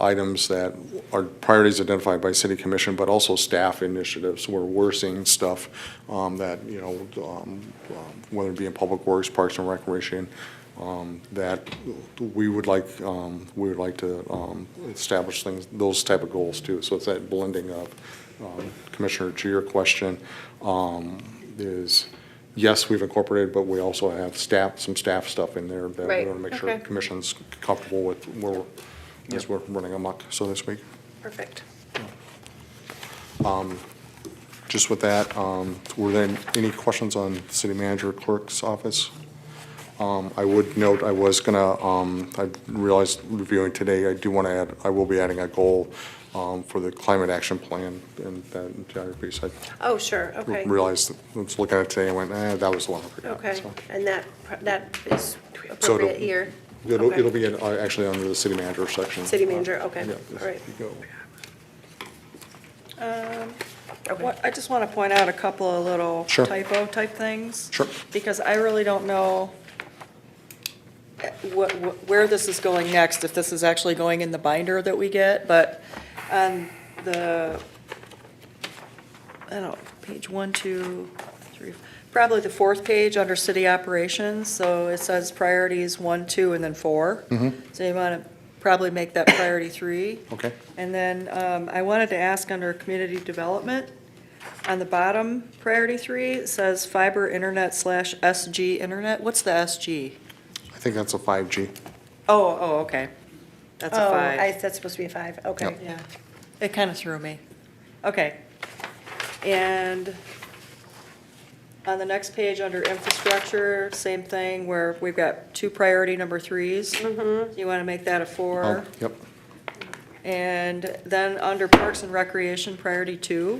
items that are priorities identified by city commission, but also staff initiatives where we're seeing stuff um, that, you know, um, um, whether it be in public works, parks and recreation, um, that we would like, um, we would like to um, establish things, those type of goals too. So it's that blending of, um, Commissioner, to your question, um, is, yes, we've incorporated, but we also have staff, some staff stuff in there that we Right, want to make sure okay. the commission's comfortable with where we're, as we're running amok, so to speak. Perfect. Just with that, um, were there any questions on city manager clerk's office? Um, I would note, I was gonna, um, I realized reviewing today, I do want to add, I will be adding a goal um, for the climate action plan and that entire piece. I Oh, sure, okay. realized, I was looking at it today and went, eh, that was the one I forgot. Okay, so. and that, that is So it'll- appropriate here? It'll, Okay. it'll be in, uh, actually under the city manager section. City manager, okay, Yeah, all right. you go. Um, Okay. What- I just want to point out a couple of little Sure. typo type things. Sure. Because I really don't know eh, wh- wh- where this is going next, if this is actually going in the binder that we get, but on the, I don't know, page one, two, three, probably the fourth page under city operations, so it says priorities one, two, and then 4 So you want to probably make that priority three. Okay. And then um, I wanted to ask under community development, on the bottom, priority three, it says fiber internet slash SG internet. What's the SG? I think that's a 5G. Oh, oh, okay. That's a Oh, I, five. that's supposed to be a five, okay. Yeah, it kind of threw me. Okay. And on the next page, under infrastructure, same thing, where we've got two priority number 3s Mm-hmm. You want to make that a four? Oh, Yep, And then under Parks and Recreation, priority two,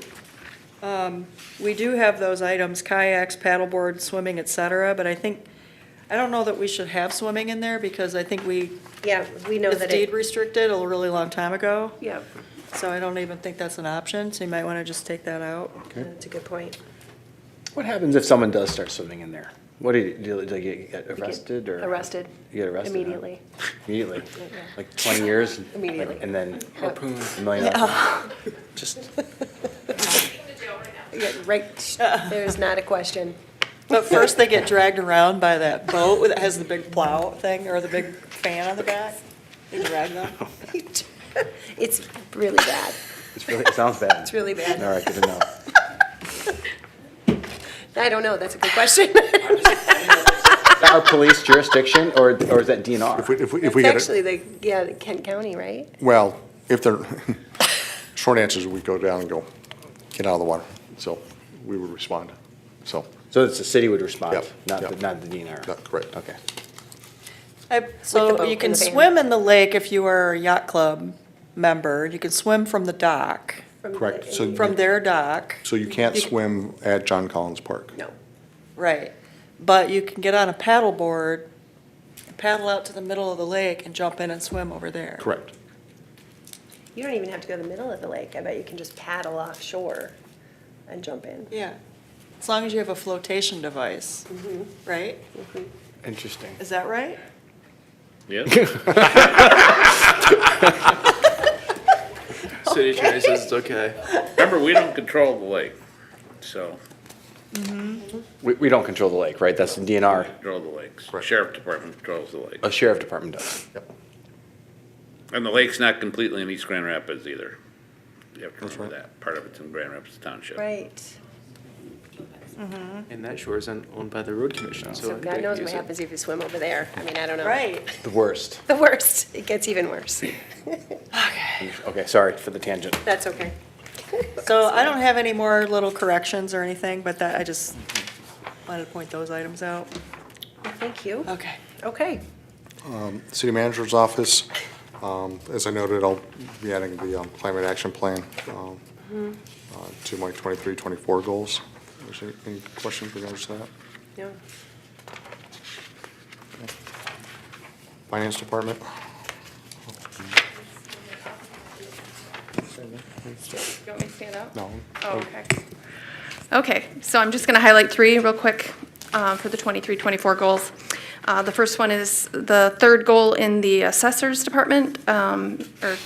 um, we do have those items, kayaks, paddleboard, swimming, et cetera, but I think, I don't know that we should have swimming in there because I think we, Yeah, we know it's that it, deed restricted a really long time ago, yeah, so I don't even think that's an option, so you might want to just take that out. okay. that's a good point. What happens if someone does start swimming in there? What do you, do they get- get We get arrested or? Arrested. You get arrested, huh? Immediately. Immediately? Like twenty years? Immediately. Like, And then? Harpoon. A million dollars? Just, Yeah, right, there's not a question. But first, they get dragged around by that boat that has the big plow thing or the big fan on the back. They drag them. It's really bad, it's really, it sounds bad. it's really bad. All right, good to know. I don't know, that's a good question. Our police jurisdiction or, or is that If we, DNR? if we, if we It's get it. actually the, yeah, the Kent County, right? Well, if they're, short answer is we go down and go, get out of the water. So we would respond. So, So it's the city would respond, Yep, not, the- yep. not the DNR? Yeah, correct. Okay. I- So boat you and can the van. swim in the lake if you are a yacht club member, you can swim from the dock, From the- correct. So, from their dock, so you can't swim at John Collins Park. No, right. But you can get on a paddleboard, paddle out to the middle of the lake and jump in and swim over there. Correct. you don't even have to go to the middle of the lake, I bet you can just paddle offshore and jump in. Yeah, as long as you have a flotation device, Mm-hmm. right? Interesting. Is that right? City attorney says it's okay. Remember, we don't control the lake, so, We, we don't control the lake, right? That's the DNR. control the lakes. Sheriff Department controls the lake. A sheriff department does. And the lake's not completely in East Grand Rapids either. You have to remember that. Part of it's in Grand Rapids Township. Right, And that shore isn't owned by the road commission, so so. they God can knows use what it. happens if you swim over there, I mean, I don't know. Right. The worst. The worst, it gets even worse, Okay, sorry for the tangent. that's okay. So I don't have any more little corrections or anything, but that, I just wanted to point those items out. Well, Thank you, Okay. okay. Um, City manager's office, um, as I noted, I'll be adding the um, climate action plan um, uh, to my 23, 24 goals. Is there Any questions regards to that? Yeah. Finance department? You want me to stand up? No. Oh, okay. Okay, so I'm just going to highlight three real quick uh, for the 23, 24 goals. Uh, The first one is the third goal in the assessors department, um, or